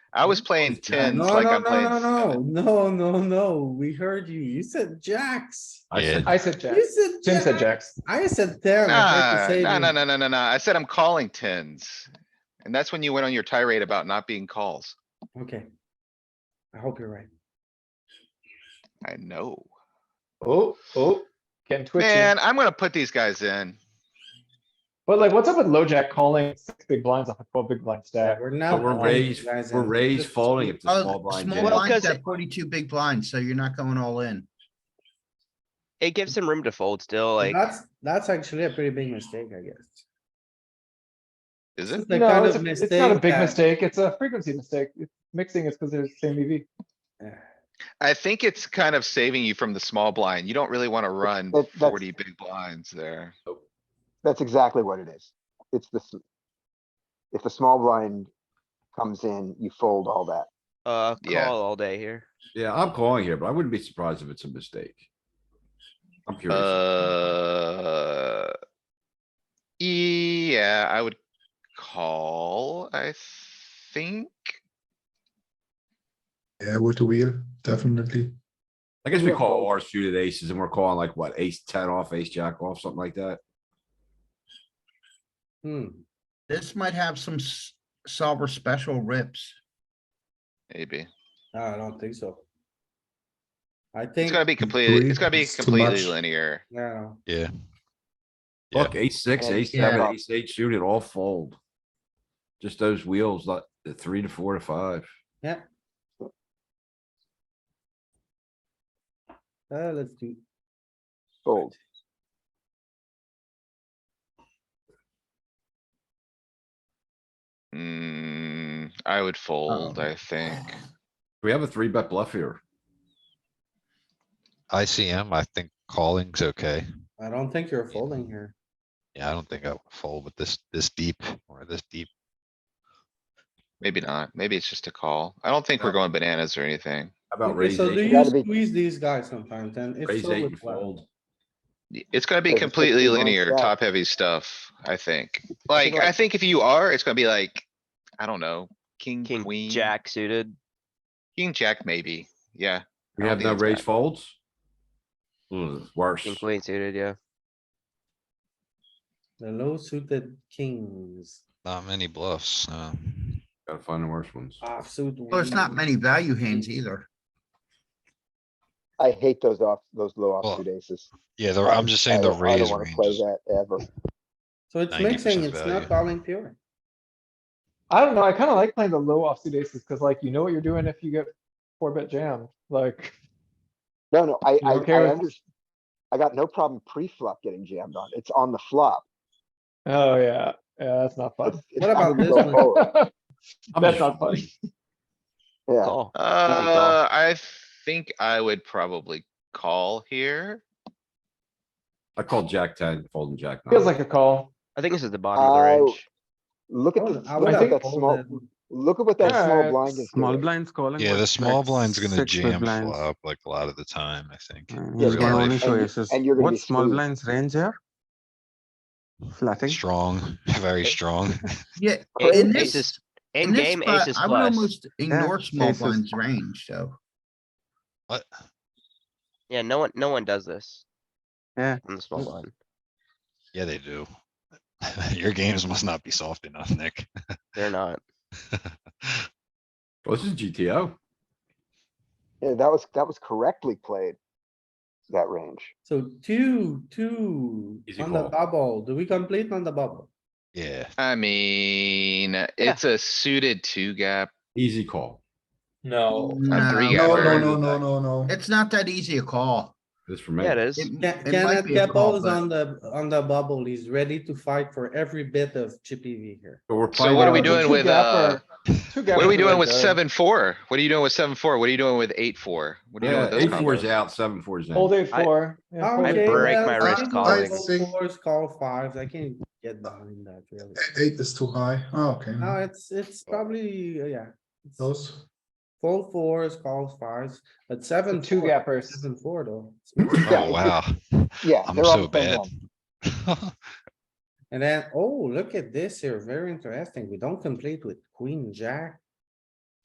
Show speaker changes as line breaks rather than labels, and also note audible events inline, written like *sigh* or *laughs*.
I was playing tens
No,
like
no,
I'm
no,
playing.
no, no, no, no, no. We heard you. You said jacks.
I
Yeah.
said,
I said jack.
You said.
Jim said
jack.
jacks.
I said ten. I
Nah,
tried to say
nah, nah,
you.
nah, nah, nah, nah. I said I'm calling tens. And that's when you went on your tirade about not being calls.
Okay. I hope you're right.
I know.
Oh, oh, getting twitchy.
Man, I'm gonna put these guys in.
But like, what's up with LoJack calling six big blinds off a twelve big blind
Yeah,
stack?
We're not.
but we're
calling you
raised,
guys
we're
in.
raised
Just-
folding if the small
Oh,
blind
small
did.
blinds
'cause
at
it-
forty-two big blinds, so you're not going all in.
It gives him room to fold still, like,
That's, that's actually a pretty big mistake, I guess.
Is
This
it?
*laughs* is the
No,
kind
it's,
of
a- it's not a
mistake
big
that-
mistake. It's a frequency mistake. It's Mixing is because they're the same E EV.
I think it's kind of saving you from the small blind. You don't really wanna run
that- that's-
forty big blinds there.
That's exactly what it is. It's the. s- If the small blind comes in, you fold all that.
uh,
Yeah.
call all day here.
Yeah, I'm calling here, but I wouldn't be surprised if it's a mistake. I'm curious.
Uh. Yeah, I would call, I think.
Yeah, with the wheel, definitely.
I guess we call our suited aces and we're calling like what, ace ten off, ace jack off, something like that.
Hmm,
This might have some s- solver special rips.
Maybe.
no, I don't think so. I
It's
think,
gotta be completely,
Three
it's gotta be
is too
completely
much.
linear.
no,
Yeah. Yeah.
Look, ace six,
And-
ace seven,
Yeah.
ace eight suited, all fold. Just those wheels, like the three to four to five.
uh, let's do,
Fold.
Hmm, I would fold, I think.
We have a three bet bluff here.
ICM, I think calling's okay.
I don't think you're folding here.
Yeah, I don't think I would fold with this, this deep or this deep.
Maybe not. Maybe it's just a call. I don't think we're
Yeah.
going bananas or anything.
How about
Okay,
raise
So do
eight,
you
Gotta be-
squeeze these guys sometimes and if
raise
so,
eight
with
and
what?
fold?
Y- It's gonna be
Like a
completely
50 line
linear,
stack.
top heavy stuff, I think. Like, I
like-
think if you are, it's gonna be like, I don't know, king,
King,
queen.
jack suited.
King, jack, maybe. Yeah.
We
I don't
have
think
no
it's
raise
bad.
folds? Ooh, worse.
King, queen suited, yeah.
The low suited kings,
Not many bluffs, so.
Gotta find the worst ones.
offsuit.
Well, it's
Mm.
not
wings.
many value hands either.
I hate those off, those low
Well,
offsuit aces.
Yeah, the- I'm just saying
I-
the
I
raise
don't wanna play
range.
that ever.
So it's
90%
mixing, it's
value.
not calling pure.
I don't know. I kinda like playing the low offsuit aces, cause like, you know what you're doing if you get four bet jammed, like.
No, no, I,
You
I,
don't care
I
if-
under, I got no problem pre-flop getting jammed on. It's on the flop.
Oh, yeah, yeah, that's not
*laughs*
fun.
It's- it's
What about
Oh,
on the
this
low
one?
forward.
I'm
That's
just
not
folding.
Yeah,
Call.
Uh, I think I would probably call here.
I called jack ten, folding jack nine.
Feels like a call.
I think this is the bottom of the range.
look at,
I
the-
would- I
look
would
at
think
that
have
small,
folded.
look at what that small
Alright,
blind is
Small
doing.
blinds calling.
Yeah,
with
the small
like
blind's gonna
six big
jam
blinds.
flop like a lot of the time, I think.
Uh,
Yeah,
He's
real
gonna only
life.
show
And-
aces.
and you're gonna
What
be
small
screwed.
blinds range here? Flatting.
Strong, *laughs* very strong.
Yeah,
A-
in this,
Aces,
in
in
this
game
spot,
aces
I would
plus.
almost ignore small
aces.
blinds range, so.
What?
Yeah, no one, no one does this.
Yeah.
On the small blind.
Yeah, they do. *laughs* Your games must not be soft enough, Nick. *laughs*
They're not.
Well, This is GTO.
Yeah, that was, that was correctly played. That range.
So two, two,
Easy
on the
call.
bubble, do we complete on the bubble?
Yeah,
I mean, it's a suited two gap.
Easy call.
No.
I'm three
No,
No, no,
gapper.
no, no, no, no.
It's not that easy a call.
This for me.
Yeah, it is.
It-
Ca-
it might
Kenneth
be a call,
Keppel is
but-
on the, on the bubble, he's ready to fight for every bit of chippy V here.
But we're
So
playing.
what are we
out of the-
doing with, uh, what are we doing with
seven?
seven, four? What are you doing with seven, four? What are you doing with eight, four? What are you doing
Yeah,
with those
eight fours
combos?
out, seven fours in.
Old
Well,
eight four. yeah, four
I
bet.
break
well,
my
I
wrist
think
calling.
call Fours, call fives, I can't get behind that really.
Mm-hmm.
E- Eight is too high. Oh, okay.
No, it's, it's probably, uh, yeah. it's
Those,
Fold fours, call fives, but seven.
And two
four-
gappers.
Seven, four though.
Yeah,
oh
it's
wow,
just- Yeah.
I'm
they're all
so
the same
bad.
line.
*laughs*
And then, oh, look at this here, very interesting. We don't complete with queen, jack,